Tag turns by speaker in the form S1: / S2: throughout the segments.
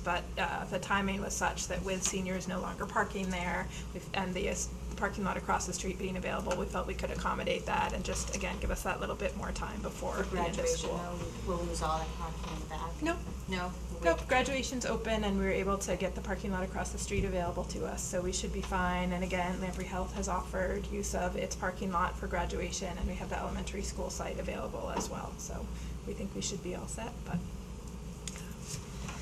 S1: but uh, the timing was such that with seniors no longer parking there we've- and the uh, s- parking lot across the street being available, we felt we could accommodate that and just, again, give us that little bit more time before
S2: For
S1: the end of
S2: graduation,
S1: school.
S2: though, we'll lose all that parking in the back?
S1: Nope.
S2: No?
S1: Nope, graduation's open and we were able to get the parking lot across the street available to us, so we should be fine. And again, Lamprey Health has offered use of its parking lot for graduation and we have the elementary school site available as well. So we think we should be all set, but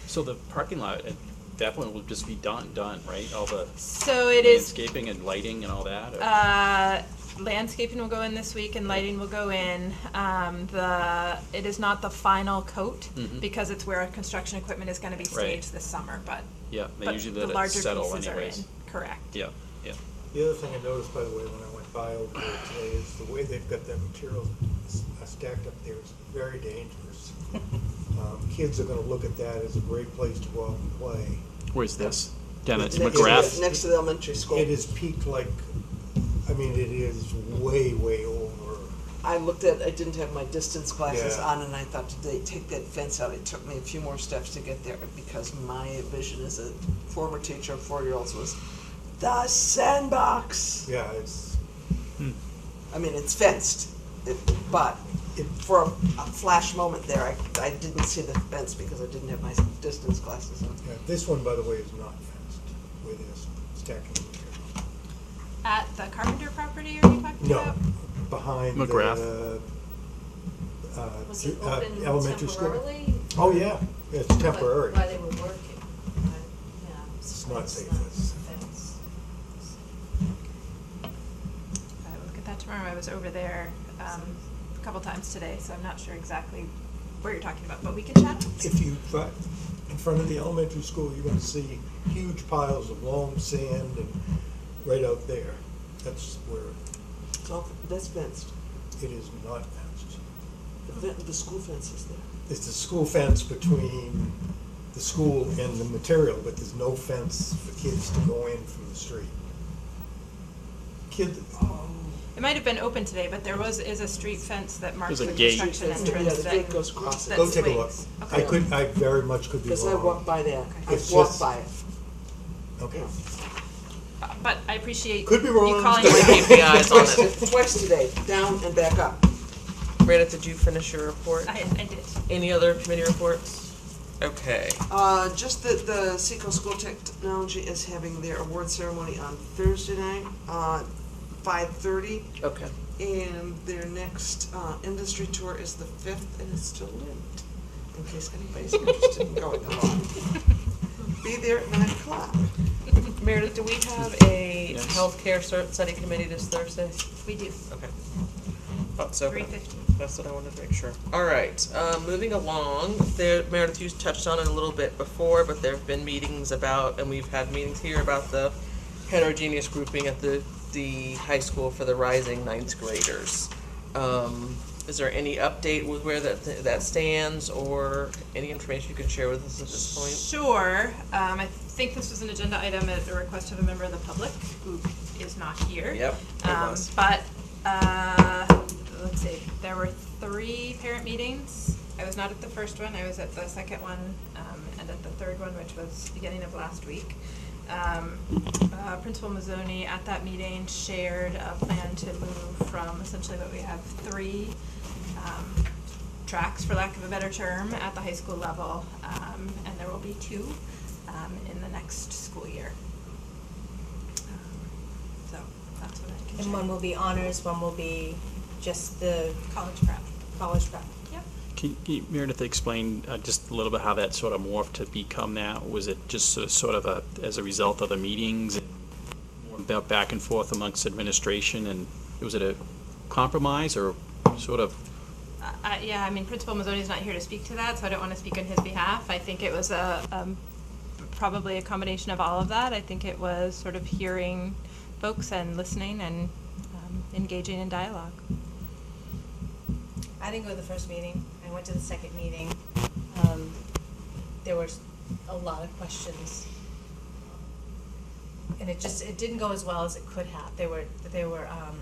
S3: So the parking lot at that point will just be done, done, right? All the
S1: so it is
S3: landscaping and lighting and all that? or-
S1: Uh, landscaping will go in this week and lighting will go in. Um, the, it is not the final coat
S3: Mhm.
S1: because it's where our construction equipment is gonna be
S3: Right.
S1: staged this summer, but.
S3: Yeah,
S1: but
S3: they usually
S1: the
S3: let it
S1: larger
S3: settle
S1: pieces are
S3: anyways.
S1: in, Correct.
S3: Yeah, yeah.
S4: The other thing I noticed, by the way, when I went by over there today, is the way they've got their materials s- uh, stacked up there is very dangerous. Um, Kids are gonna look at that as a great place to go out and play.
S3: Where's this? Down at
S5: Next to the-
S3: McGrath?
S5: Next to the elementary school.
S4: It is peaked like, I mean, it is way, way over.
S5: I looked at, I didn't have my distance glasses
S4: Yeah.
S5: on and I thought, did they take that fence out? It took me a few more steps to get there because my vision as a former teacher of four-year-olds was the sandbox.
S4: Yeah, it's,
S5: I mean, it's fenced, it- but
S4: it,
S5: for a a flash moment there, I, I didn't see the fence because I didn't have my distance glasses on.
S4: yeah, this one, by the way, is not fenced with this stacking of material.
S1: At the Carpenter property are you talking
S4: No,
S1: about?
S4: behind the,
S3: McGrath.
S4: uh,
S2: Was it
S4: uh,
S2: open
S4: elementary school.
S2: temporarily?
S4: Oh, yeah, it's temporary.
S2: While they were working, but, yeah.
S4: It's not safe,
S2: not
S4: it's-
S2: fenced.
S1: I will look at that tomorrow. I was over there, um, a couple times today, so I'm not sure exactly where you're talking about, but we can chat.
S4: If you drive in front of the elementary school, you're gonna see huge piles of loam, sand, and right out there. That's where
S5: It's all, that's fenced.
S4: it is not fenced.
S5: The, fen- the school fence is there.
S4: It's the school fence between the school and the material, but there's no fence for kids to go in from the street. Kid,
S1: It might have been open today, but there was, is a street fence that marks
S3: There's
S1: the
S3: a gate.
S1: construction
S5: Yeah, the
S1: entrance
S5: gate
S1: that-
S5: goes across it.
S1: that
S4: go take a look.
S1: swings.
S4: I
S1: Okay.
S4: could, I very much could be wrong.
S5: Because I walked by there. I
S4: It's
S5: walked
S4: just-
S5: by it.
S4: Okay.
S1: But I appreciate
S4: Could be wrong.
S1: you calling
S4: Could
S1: it
S4: be
S1: out.
S6: keeping eyes on
S5: Twice,
S6: it.
S5: twice today, down and back up.
S6: Rita, did you finish your report?
S1: I, I did.
S6: Any other committee reports? Okay.
S5: Uh, just that the Seco School Technology is having their award ceremony on Thursday night, uh, five thirty.
S6: Okay.
S5: And their next, uh, industry tour is the fifth, and it's still lit, in case anybody's interested in going along. Be there at nine o'clock.
S6: Meredith, do we have a
S3: Yes.
S6: healthcare cer- study committee this Thursday?
S1: We do.
S6: Okay. Thought so. but
S1: Three fifty.
S6: That's what I wanted to make sure. All right, uh, moving along, there, Meredith, you touched on it a little bit before, but there have been meetings about, and we've had meetings here about the heterogeneous grouping at the, the high school for the rising ninth graders. Um, is there any update with where that, that stands or any information you can share with us at this point?
S1: Sure. Um, I think this was an agenda item at the request of a member of the public who is not here.
S6: Yep, it
S1: Um,
S6: was.
S1: but, uh, let's see, there were three parent meetings. I was not at the first one, I was at the second one, um, and at the third one, which was beginning of last week. Um, uh, Principal Mazzoni at that meeting shared a plan to move from essentially what we have three, um, tracks, for lack of a better term, at the high school level, um, and there will be two, um, in the next school year. Um, So, that's what I can share.
S7: And one will be honors, one will be just the
S1: College prep.
S7: college prep.
S1: Yep.
S3: Can can you, Meredith, explain uh, just a little bit how that sort of morphed to become that? Was it just so- sort of a, as a result of the meetings? and more About back and forth amongst administration and was it a compromise or sort of?
S1: Uh, I- yeah, I mean, Principal Mazzoni's not here to speak to that, so I don't want to speak on his behalf. I think it was a, um, probably a combination of all of that. I think it was sort of hearing folks and listening and um, engaging in dialogue.
S7: I didn't go to the first meeting, I went to the second meeting. Um, there was a lot of questions. And it just, it didn't go as well as it could have. There were, there were, um,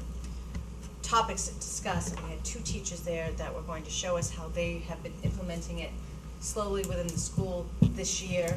S7: topics to discuss, and we had two teachers there that were going to show us how they have been implementing it slowly within the school this year.